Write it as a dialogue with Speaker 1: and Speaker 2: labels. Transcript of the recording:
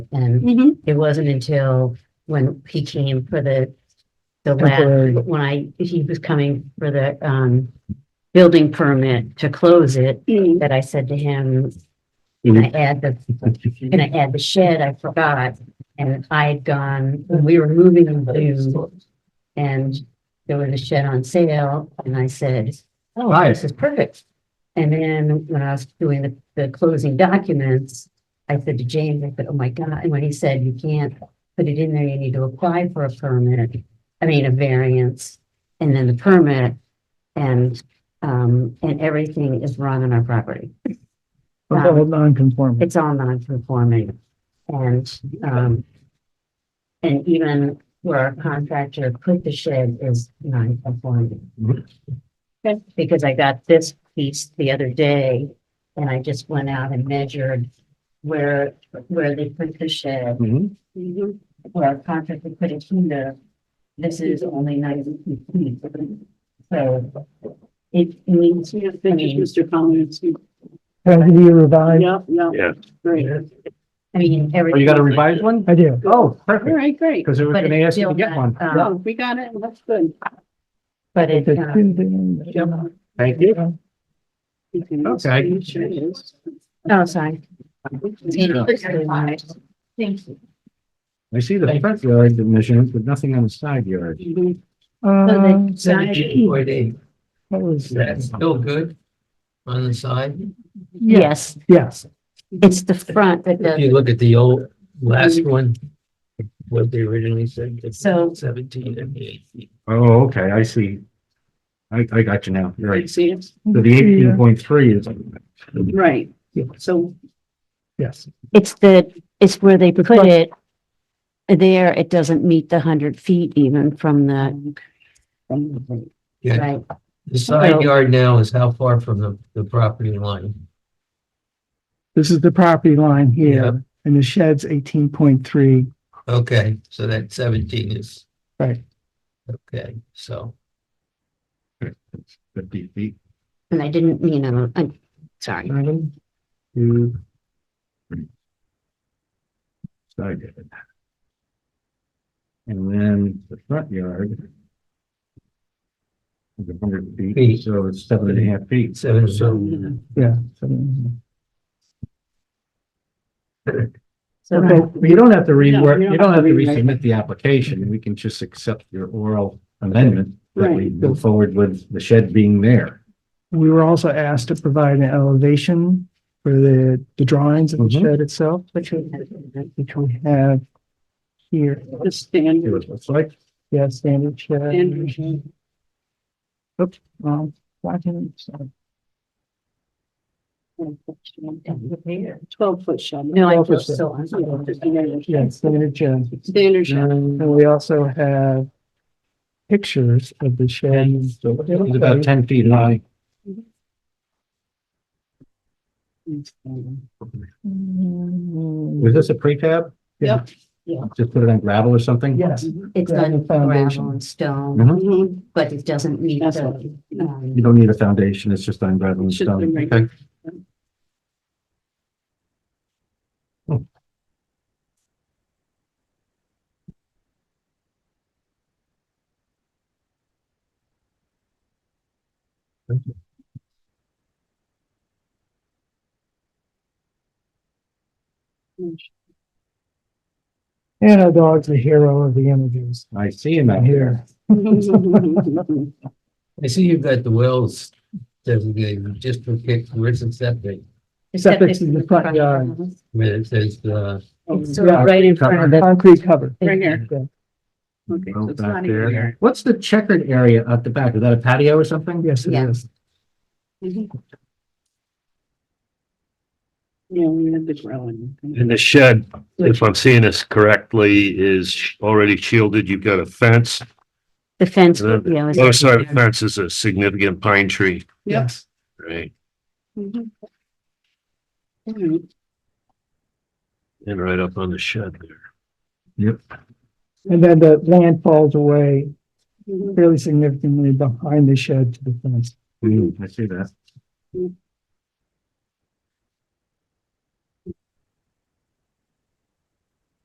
Speaker 1: And
Speaker 2: Mhm.
Speaker 1: it wasn't until when he came for the, the last,
Speaker 3: Temporary.
Speaker 1: when I, he was coming for the, um, building permit to close it,
Speaker 2: Mm.
Speaker 1: that I said to him, can I add the, can I add the shed? I forgot. And I had gone, when we were moving into, and there was a shed on sale, and I said, oh, this
Speaker 3: Nice.
Speaker 1: is perfect. And then when I was doing the, the closing documents, I said to James, I said, oh my God, and when he said, you can't put it in there, you need to apply for a permit, I mean, a variance, and then the permit, and, um, and everything is wrong on our property.
Speaker 3: It's all non-conforming.
Speaker 1: It's all non-conforming and, um, and even where our contractor put the shed is non-conforming.
Speaker 2: Okay.
Speaker 1: Because I got this piece the other day and I just went out and measured where, where they put the shed,
Speaker 4: Mm-hmm.
Speaker 3: Mhm.
Speaker 2: Mhm.
Speaker 1: where our contractor put it here. This is only ninety feet. So it needs,
Speaker 2: Yeah, thank you, Mr. Collins.
Speaker 3: Can I give you a revise?
Speaker 2: Yeah, yeah.
Speaker 4: Yeah.
Speaker 2: Great.
Speaker 1: I mean,
Speaker 4: Oh,
Speaker 1: everything.
Speaker 4: you got a revised one?
Speaker 3: I do.
Speaker 4: Oh,
Speaker 2: All
Speaker 4: perfect,
Speaker 2: right, great.
Speaker 4: because they were
Speaker 1: But
Speaker 4: gonna
Speaker 1: it's
Speaker 4: ask you to
Speaker 1: still
Speaker 4: get
Speaker 1: not,
Speaker 4: one.
Speaker 1: um,
Speaker 4: Yeah.
Speaker 2: Oh, we got it. That's good.
Speaker 1: But it,
Speaker 3: The
Speaker 1: uh,
Speaker 3: two things.
Speaker 4: Thank you.
Speaker 2: You can-
Speaker 4: Okay.
Speaker 2: you Sure is.
Speaker 1: oh, sorry.
Speaker 4: Yeah.
Speaker 1: Thank you.
Speaker 4: I see the front yard dimensions, but nothing on the side yard.
Speaker 2: Mhm.
Speaker 3: Uh,
Speaker 5: Seventy-four day,
Speaker 3: what was
Speaker 5: that's
Speaker 3: that?
Speaker 5: still good on the side.
Speaker 1: Yes,
Speaker 3: Yes,
Speaker 1: it's the front that
Speaker 5: If
Speaker 1: does,
Speaker 5: you look at the old last one, what they originally said, it's
Speaker 1: So-
Speaker 5: seventeen and eighteen.
Speaker 4: Oh, okay, I see. I, I got you now, You're
Speaker 2: You
Speaker 4: right. So
Speaker 2: See it?
Speaker 4: the eighteen point three is,
Speaker 2: Right. So
Speaker 3: yes.
Speaker 1: it's the, it's where they put it. There, it doesn't meet the hundred feet even from the.
Speaker 5: Yeah,
Speaker 1: Right,
Speaker 5: the side
Speaker 1: Well-
Speaker 5: yard now is how far from the, the property line?
Speaker 3: This is the property line
Speaker 5: Yep.
Speaker 3: here and the shed's eighteen point three.
Speaker 5: Okay, so that seventeen is.
Speaker 3: Right.
Speaker 5: Okay, so,
Speaker 4: fifty feet.
Speaker 1: and I didn't, you know, I'm sorry.
Speaker 4: Seven, two, three. Side yard. And then the front yard. is hundred
Speaker 5: Feet.
Speaker 4: feet, so it's seven and a half feet.
Speaker 5: seven, so,
Speaker 2: Mhm.
Speaker 3: Yeah. so-
Speaker 1: So
Speaker 4: Okay, but you don't have to
Speaker 2: No,
Speaker 4: rework,
Speaker 2: you don't
Speaker 4: you don't
Speaker 2: have
Speaker 4: have
Speaker 2: to
Speaker 4: to
Speaker 2: rewrite.
Speaker 4: resubmit the application, we can just accept your oral amendment that we
Speaker 2: Right.
Speaker 4: go forward with the shed being there.
Speaker 3: We were also asked to provide an elevation for the, the drawings of the
Speaker 4: Mhm.
Speaker 3: shed itself,
Speaker 1: which we
Speaker 3: which we have here.
Speaker 2: the
Speaker 4: See
Speaker 2: standard.
Speaker 4: what it looks like.
Speaker 3: Yeah, standard shed. Um,
Speaker 2: Standard shed.
Speaker 3: Oops, wrong document, sorry.
Speaker 2: Twelve foot shed.
Speaker 1: No, I feel
Speaker 3: Officer.
Speaker 1: so uncomfortable.
Speaker 3: Yeah, standard shed.
Speaker 2: Standard shed.
Speaker 3: And we also have pictures of the shed.
Speaker 4: So it's about ten feet high.
Speaker 3: Mm,
Speaker 4: Was this a prefab?
Speaker 2: Yep.
Speaker 1: Yeah.
Speaker 4: Just put it on gravel or something?
Speaker 3: Yes,
Speaker 1: It's
Speaker 3: Yeah, the
Speaker 1: done
Speaker 3: foundation.
Speaker 1: gravel and stone,
Speaker 4: Mhm.
Speaker 2: Mhm.
Speaker 1: but it doesn't meet
Speaker 2: That's
Speaker 1: the, um,
Speaker 4: You don't need a foundation, it's just on gravel and
Speaker 2: Should have been
Speaker 4: stone.
Speaker 2: right.
Speaker 4: Mm-hmm. Okay.
Speaker 3: and our dog's the hero of the images
Speaker 4: I see him out here.
Speaker 3: here.
Speaker 2: Mm-hmm.
Speaker 5: I see you've got the wells designated just for kick, where's the septic?
Speaker 3: Except
Speaker 1: septic
Speaker 3: it's in the front yard.
Speaker 5: Where it says, uh,
Speaker 2: Oh,
Speaker 1: It's sort of
Speaker 3: Yeah.
Speaker 1: right in front of it.
Speaker 3: Concrete cover.
Speaker 2: Right here.
Speaker 3: Yeah.
Speaker 2: Okay, so
Speaker 4: Well,
Speaker 2: it's
Speaker 4: Oh, back
Speaker 2: not
Speaker 4: there.
Speaker 2: here.
Speaker 4: What's the checkered area at the back? Is that a patio or something?
Speaker 3: Yes, it
Speaker 1: Yeah.
Speaker 3: is.
Speaker 2: Mhm. Yeah, we had the growing.
Speaker 6: And the shed, if I'm seeing this correctly, is already shielded. You've got a fence.
Speaker 1: The fence, yeah.
Speaker 6: The
Speaker 1: it's-
Speaker 6: other side of the fence is a significant pine tree,
Speaker 2: Yep.
Speaker 3: Yes.
Speaker 6: right?
Speaker 2: Mhm. All right.
Speaker 6: And right up on the shed there.
Speaker 3: And then the land falls away
Speaker 2: Mhm.
Speaker 6: Hmm.
Speaker 3: fairly significantly behind the shed to the fence.
Speaker 4: Mm, I see that.